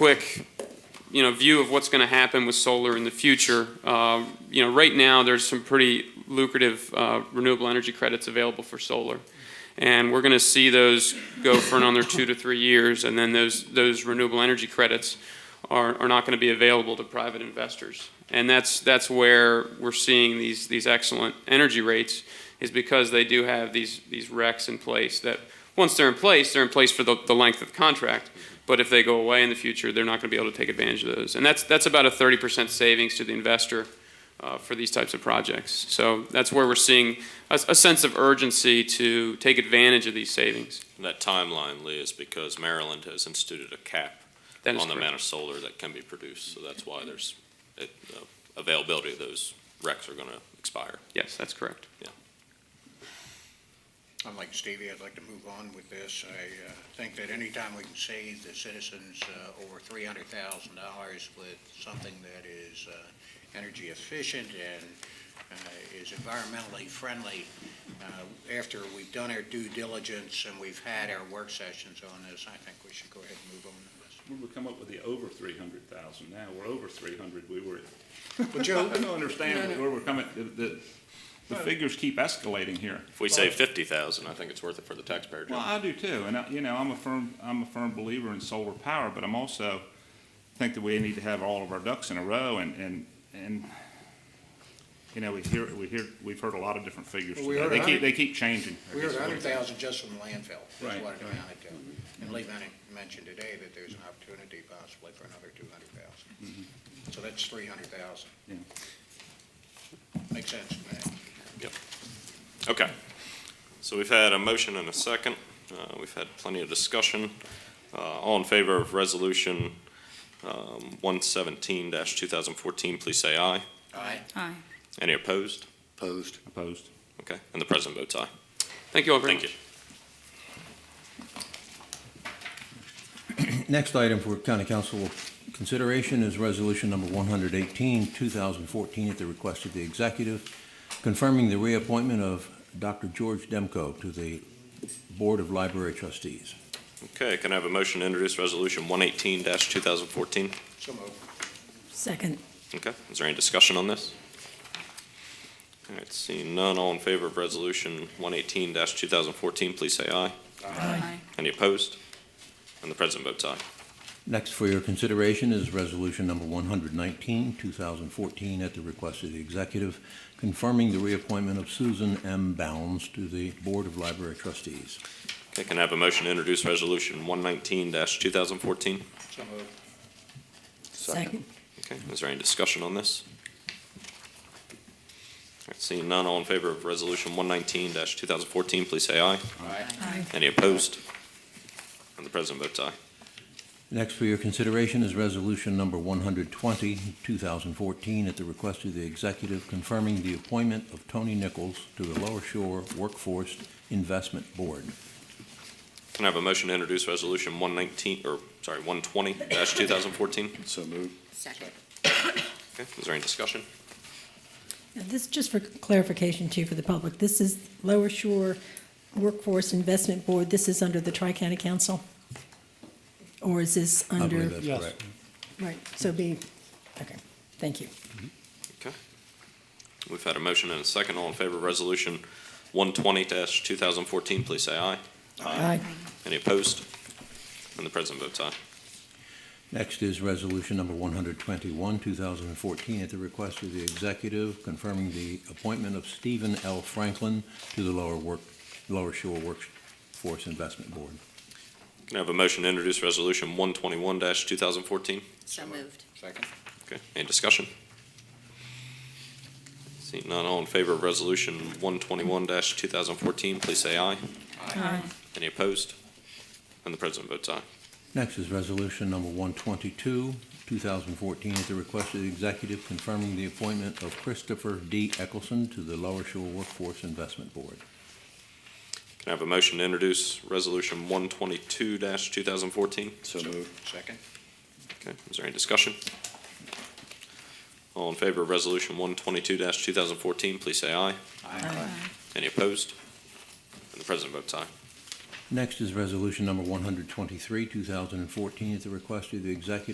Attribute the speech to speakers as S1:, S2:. S1: quick, you know, view of what's going to happen with solar in the future. Uh, You know, right now, there's some pretty lucrative uh, renewable energy credits available for solar. And we're going to see those go for another two to three years, and then those, those renewable energy credits are, are not going to be available to private investors. And that's, that's where we're seeing these, these excellent energy rates, is because they do have these, these RECs in place that, once they're in place, they're in place for the, the length of the contract. But if they go away in the future, they're not going to be able to take advantage of those. And that's, that's about a 30% savings to the investor uh, for these types of projects. So that's where we're seeing a, a sense of urgency to take advantage of these savings.
S2: And that timeline, Lee, is because Maryland has instituted a cap
S1: That
S2: on
S1: is
S2: the
S1: correct.
S2: amount of solar that can be produced, so that's why there's, it, uh, availability of those recs are gonna expire.
S1: Yes, that's correct.
S3: I'm like Stevie, I'd like to move on with this. I uh, think that anytime we can save the citizens uh, over three hundred thousand dollars with something that is uh, energy efficient and uh, is environmentally friendly, uh, after we've done our due diligence and we've had our work sessions on this, I think we should go ahead and move on to this.
S4: We would come up with the over three hundred thousand, now we're over three hundred, we were.
S3: But
S4: I
S3: Joe,
S4: don't understand where we're coming, the, the, the figures keep escalating here.
S2: If we save fifty thousand, I think it's worth it for the taxpayer,
S4: Well,
S2: John.
S4: I do too, and I, you know, I'm a firm, I'm a firm believer in solar power, but I'm also think that we need to have all of our ducks in a row and, and, and, you know, we hear, we hear, we've heard a lot of different figures
S3: Well, we
S4: today.
S3: heard
S4: They
S3: a
S4: keep,
S3: hundred-
S4: they keep changing. I
S3: we
S4: guess
S3: were
S4: is
S3: at
S4: what
S3: a hundred
S4: it is.
S3: thousand just from landfill, that's
S4: Right,
S3: what it
S4: right.
S3: amounted to. And Lee Manning mentioned today that there's an opportunity possibly for another two hundred thousand.
S4: Mm-hmm.
S3: So that's three hundred thousand.
S4: Yeah.
S3: Makes sense to me.
S2: Okay, so we've had a motion and a second, uh, we've had plenty of discussion. Uh, all in favor of resolution, um, one seventeen two thousand fourteen, please say aye.
S3: Aye.
S5: Aye.
S2: Any opposed?
S3: Opposed.
S4: Opposed.
S2: Okay, and the president votes aye.
S1: Thank you all very
S2: Thank
S1: much.
S2: you.
S6: Next item for county council consideration is resolution number 118, 2014, at the request of the executive, confirming the reappointment of Dr. George Demko to the Board of Library Trustees.
S2: Okay, can I have a motion to introduce resolution one eighteen two thousand fourteen?
S3: So moved.
S5: Second.
S2: Okay, is there any discussion on this? All right, seeing none, all in favor of resolution one eighteen two thousand fourteen, please say aye.
S5: Aye.
S2: Any opposed? And the president votes aye.
S6: Next for your consideration is resolution number 119, 2014, at the request of the executive, confirming the reappointment of Susan M. Bounds to the Board of Library Trustees.
S2: Okay, can I have a motion to introduce resolution one nineteen two thousand fourteen?
S3: So moved.
S5: Second.
S2: Okay, is there any discussion on this? All right, seeing none, all in favor of resolution one nineteen two thousand fourteen, please say aye.
S3: Aye.
S5: Aye.
S2: Any opposed? And the president votes aye.
S6: Next for your consideration is Resolution Number 120, 2014, at the request of the executive confirming the appointment of Tony Nichols to the Lower Shore Workforce Investment Board.
S2: Can I have a motion to introduce resolution one nineteen, or, sorry, one twenty two thousand fourteen?
S7: So moved.
S5: Second.
S2: Okay, is there any discussion?
S8: Now, This, just for clarification too for the public, this is Lower Shore Workforce Investment Board, this is under the Tri-County Council? Or is this
S6: I believe
S8: under,
S6: that's correct.
S8: right, so be, okay, thank you.
S2: We've had a motion and a second. All in favor of resolution one twenty two thousand fourteen, please say aye.
S8: Aye.
S2: Any opposed? And the president votes aye.
S6: Next is Resolution Number 121, 2014, at the request of the executive confirming the appointment of Stephen L. Franklin to the Lower Work, Lower Shore Workforce Investment Board.
S2: Can I have a motion to introduce resolution one twenty-one two thousand fourteen?
S5: So moved.
S3: Second.
S2: Okay, any discussion? Seeing none, all in favor of resolution one twenty-one two thousand fourteen, please say aye.
S5: Aye.
S2: Any opposed? And the president votes aye.
S6: Next is Resolution Number 122, 2014, at the request of the executive confirming the appointment of Christopher D. Eccleston to the Lower Shore Workforce Investment Board.
S2: Can I have a motion to introduce resolution one twenty-two two thousand fourteen?
S7: So moved.
S3: Second.
S2: Okay, is there any discussion? All in favor of resolution one twenty-two two thousand fourteen, please say aye. Any opposed? And the president votes aye.
S6: Next is Resolution Number 123, 2014, at the request of the executive